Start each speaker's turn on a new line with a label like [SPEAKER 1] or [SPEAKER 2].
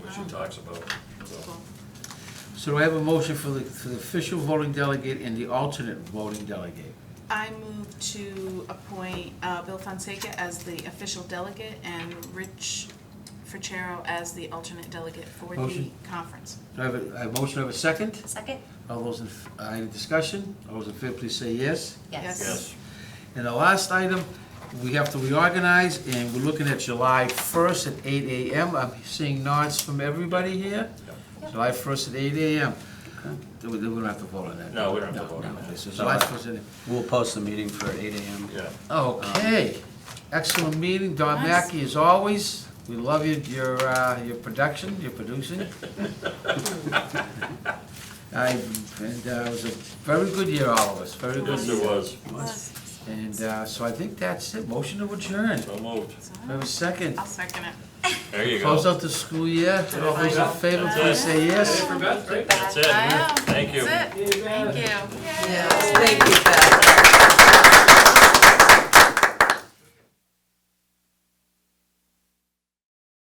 [SPEAKER 1] she talks about, so.
[SPEAKER 2] So do I have a motion for the, for the official voting delegate and the alternate voting delegate?
[SPEAKER 3] I move to appoint uh, Bill Fonseca as the official delegate and Rich Fuchero as the alternate delegate for the
[SPEAKER 2] Motion.
[SPEAKER 3] conference.
[SPEAKER 2] Do I have a, a motion, do I have a second?
[SPEAKER 4] Second?
[SPEAKER 2] All those in, f- uh, any discussion? All those in favor, please say yes.
[SPEAKER 3] Yes.
[SPEAKER 1] Yes,
[SPEAKER 2] And the last item, we have to reorganize, and we're looking at July 1st at 8 AM. I'm seeing nods from everybody here.
[SPEAKER 4] Yep.
[SPEAKER 2] July 1st at 8 AM. Do We we don't have to vote on that.
[SPEAKER 1] No, we don't have to vote on
[SPEAKER 2] no.
[SPEAKER 1] that.
[SPEAKER 2] Okay, So July 1st at
[SPEAKER 5] We'll post the meeting for eight AM.
[SPEAKER 1] yeah.
[SPEAKER 2] Okay, excellent meeting, Don
[SPEAKER 3] Nice.
[SPEAKER 2] Mackey as always, we love you, your, uh, your production, your producing. I, and, uh, it was a very good year, all of us, very good
[SPEAKER 1] Yes, it
[SPEAKER 2] year.
[SPEAKER 1] was.
[SPEAKER 3] Yes.
[SPEAKER 2] And, uh, so I think that's it, motion to adjourn,
[SPEAKER 1] So moved.
[SPEAKER 2] we have a second.
[SPEAKER 3] I'll second it.
[SPEAKER 1] There you
[SPEAKER 2] Close
[SPEAKER 1] go.
[SPEAKER 2] out the school year, all those in favor,
[SPEAKER 3] That's
[SPEAKER 2] please say yes.
[SPEAKER 1] That's it.
[SPEAKER 3] I know.
[SPEAKER 1] Thank you.
[SPEAKER 3] That's it. Thank you.
[SPEAKER 4] Yes, thank you, Beth.